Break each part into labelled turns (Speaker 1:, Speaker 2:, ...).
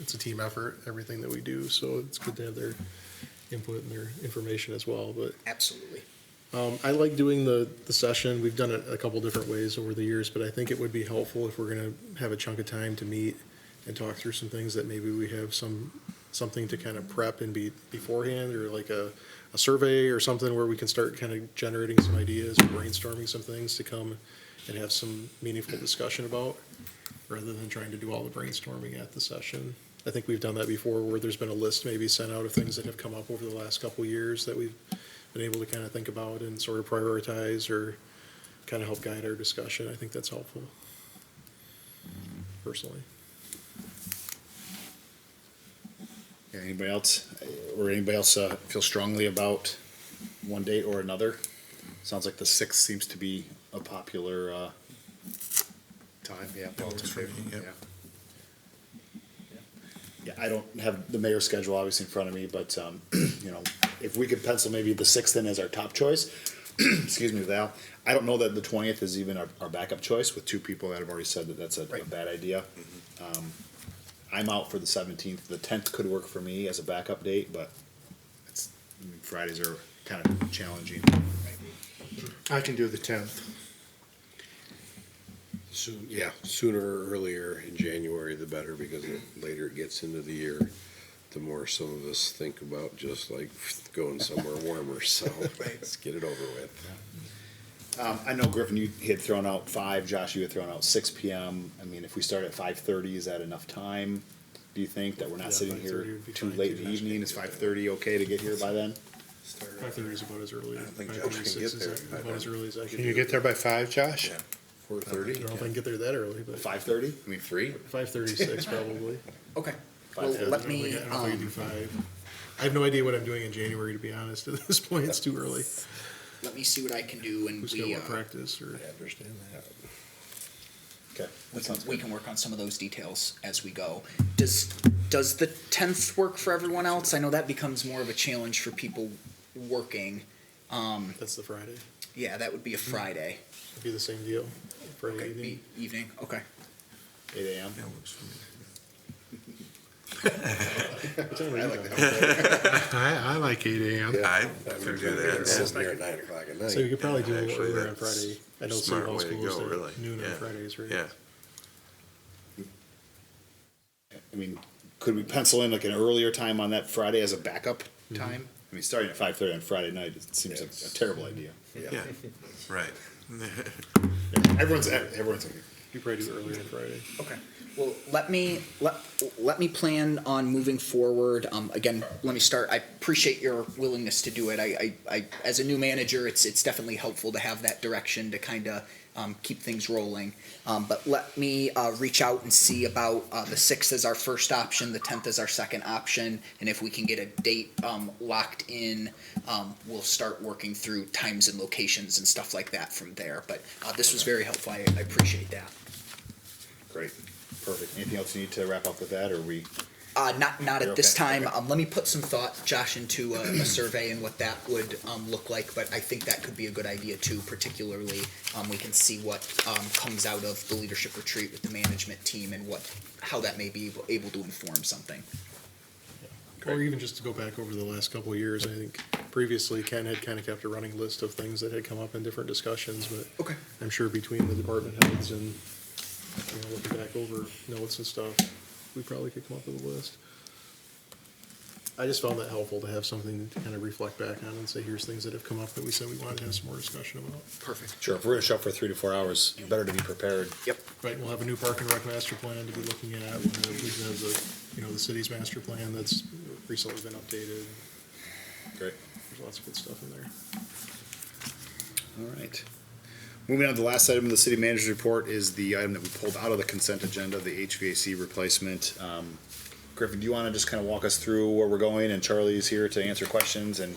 Speaker 1: it's a team effort, everything that we do, so it's good to have their input and their information as well, but
Speaker 2: Absolutely.
Speaker 1: Um, I like doing the, the session. We've done it a couple different ways over the years, but I think it would be helpful if we're gonna have a chunk of time to meet and talk through some things that maybe we have some, something to kind of prep and be beforehand, or like a, a survey or something where we can start kind of generating some ideas, brainstorming some things to come and have some meaningful discussion about, rather than trying to do all the brainstorming at the session. I think we've done that before, where there's been a list maybe sent out of things that have come up over the last couple of years that we've been able to kind of think about and sort of prioritize or kind of help guide our discussion. I think that's helpful, personally.
Speaker 3: Yeah, Anybody else, or anybody else uh, feel strongly about one date or another? Sounds like the sixth seems to be a popular uh, time, yeah.
Speaker 4: That works for me,
Speaker 3: yeah.
Speaker 4: yep.
Speaker 3: Yeah, I don't have the mayor's schedule obviously in front of me, but, um, you know, if we could pencil maybe the sixth in as our top choice, excuse me, Val, I don't know that the twentieth is even our, our backup choice with two people that have already said that that's a a
Speaker 2: Right.
Speaker 3: bad idea. Um, I'm out for the seventeenth. The tenth could work for me as a backup date, but it's, I mean, Fridays are kind of challenging.
Speaker 4: I can do the tenth.
Speaker 5: Soon, yeah, sooner or earlier in January, the better, because the later it gets into the year, the more some of us think about just like going somewhere warmer, so let's get it over with.
Speaker 3: Um, I know Griffin, you had thrown out five. Josh, you had thrown out six p.m. I mean, if we start at five thirty, is that enough time? Do you think that we're not
Speaker 1: Yeah,
Speaker 3: sitting
Speaker 1: 5:30
Speaker 3: here
Speaker 1: would be
Speaker 3: too
Speaker 1: fine,
Speaker 3: late
Speaker 1: too.
Speaker 3: in the evening? Is five thirty okay to get here by then?
Speaker 1: Five thirty is about as early.
Speaker 5: I don't think Josh
Speaker 1: 5:36
Speaker 5: can
Speaker 1: is
Speaker 5: get there.
Speaker 1: About as early as I can.
Speaker 4: Can you get there by five, Josh?
Speaker 5: Yeah. Four
Speaker 1: I
Speaker 5: thirty?
Speaker 1: don't know if I can get there that early, but
Speaker 3: Five thirty.
Speaker 5: I mean, three?
Speaker 1: five thirty-six probably.
Speaker 2: Okay. Well,
Speaker 1: uh, Yeah, I
Speaker 2: let
Speaker 1: don't think-
Speaker 2: me,
Speaker 1: I don't know if I can do
Speaker 2: um,
Speaker 1: five. I have no idea what I'm doing in January, to be honest. At this point, it's too early.
Speaker 2: let me see what I can do and
Speaker 1: Who's
Speaker 2: we,
Speaker 1: gonna
Speaker 2: uh,
Speaker 1: want practice or?
Speaker 5: understand that.
Speaker 2: we
Speaker 3: Okay, that
Speaker 2: can,
Speaker 3: sounds
Speaker 2: we
Speaker 3: good.
Speaker 2: can work on some of those details as we go. Does, does the tenth work for everyone else? I know that becomes more of a challenge for people working. Um,
Speaker 1: That's the Friday.
Speaker 2: yeah, that would be a Friday.
Speaker 1: It'd be the same deal. Friday
Speaker 2: Okay,
Speaker 1: evening.
Speaker 2: e- evening, okay.
Speaker 3: Eight a.m.
Speaker 4: That works for me.
Speaker 1: What time are you done?
Speaker 4: I, I like eight AM.
Speaker 5: Yeah.
Speaker 4: I.
Speaker 5: I
Speaker 4: can
Speaker 5: would do
Speaker 4: do
Speaker 5: that.
Speaker 4: that.
Speaker 5: Sitting there at nine o'clock at
Speaker 1: So you
Speaker 5: night.
Speaker 1: could probably do it
Speaker 4: Actually,
Speaker 1: earlier on
Speaker 4: that's
Speaker 1: Friday. I know City
Speaker 4: Smart
Speaker 1: Hall
Speaker 4: way to
Speaker 1: schools,
Speaker 4: go, really.
Speaker 1: they're noon on
Speaker 4: Yeah.
Speaker 1: Fridays, right?
Speaker 4: Yeah,
Speaker 3: I mean, could we pencil in like an earlier time on that Friday as a backup time? I mean, starting at five thirty on Friday night it seems like a terrible idea.
Speaker 4: yeah, right.
Speaker 3: Everyone's everyone's.
Speaker 1: You probably do it earlier on Friday.
Speaker 2: Okay. Well, let me, let, let me plan on moving forward. Um, again, let me start. I appreciate your willingness to do it. I, I, I, as a new manager, it's, it's definitely helpful to have that direction to kind of, um, keep things rolling. Um, but let me, uh, reach out and see about, uh, the sixth is our first option, the tenth is our second option. And if we can get a date, um, locked in, um, we'll start working through times and locations and stuff like that from there. But, uh, this was very helpful. I, I appreciate that.
Speaker 3: Great, perfect. Anything else you need to wrap up with that, or we?
Speaker 2: Uh, not, not
Speaker 3: You're
Speaker 2: at this
Speaker 3: okay,
Speaker 2: time.
Speaker 3: okay.
Speaker 2: Um, let me put some thought, Josh, into uh, a, a survey and what that would, um, look like, but I think that could be a good idea too, particularly, um, we can see what, um, comes out of the leadership retreat with the management team and what, how that may be able, able to inform something.
Speaker 1: Or even just to go back over the last couple of years, I think previously Ken had kind of kept a running list of things that had come up in different discussions, but
Speaker 2: Okay.
Speaker 1: I'm sure between the department heads and, you know, looking back over notes and stuff, we probably could come up with a list. I just found that helpful to have something to kind of reflect back on and say, here's things that have come up that we said we wanted to have some more discussion about.
Speaker 2: Perfect.
Speaker 3: Sure, if we're gonna shop for three to four hours, better to be prepared.
Speaker 1: Right, we'll have a new park and rec master plan to be looking at, we'll have, we have the, you know, the city's master plan that's recently been updated,
Speaker 3: Great.
Speaker 1: there's lots of good stuff in there.
Speaker 3: All right. Moving on to the last item of the city manager's report is the item that we pulled out of the consent agenda, the HVAC replacement. Um, Griffin, do you wanna just kinda walk us through where we're going, and Charlie's here to answer questions and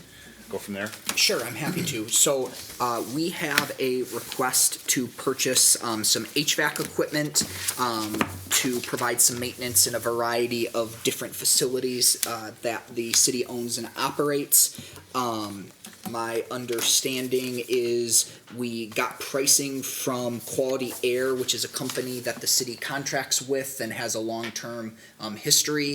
Speaker 3: go from there?
Speaker 2: Sure, I'm happy to. So, uh, we have a request to purchase, um, some HVAC equipment, um, to provide some maintenance in a variety of different facilities, uh, that the city owns and operates. Um, my understanding is we got pricing from Quality Air, which is a company that the city contracts with and has a long-term, um, history